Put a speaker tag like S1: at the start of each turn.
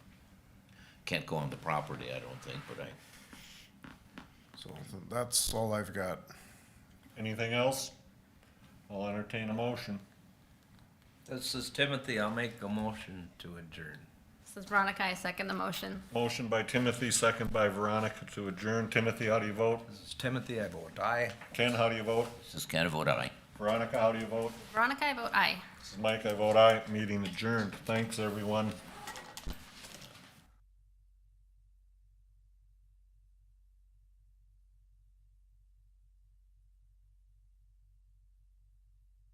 S1: can't go on the property, I don't think, but I,
S2: So th- that's all I've got.
S3: Anything else? I'll entertain a motion.
S4: This is Timothy. I'll make a motion to adjourn.
S5: This is Veronica. I second the motion.
S3: Motion by Timothy, second by Veronica to adjourn. Timothy, how do you vote?
S4: This is Timothy. I vote aye.
S3: Ken, how do you vote?
S1: this is kind of what I.
S3: Veronica, how do you vote?
S5: Veronica, I vote aye.
S3: This is Mike, I vote aye. Meeting adjourned. Thanks, everyone.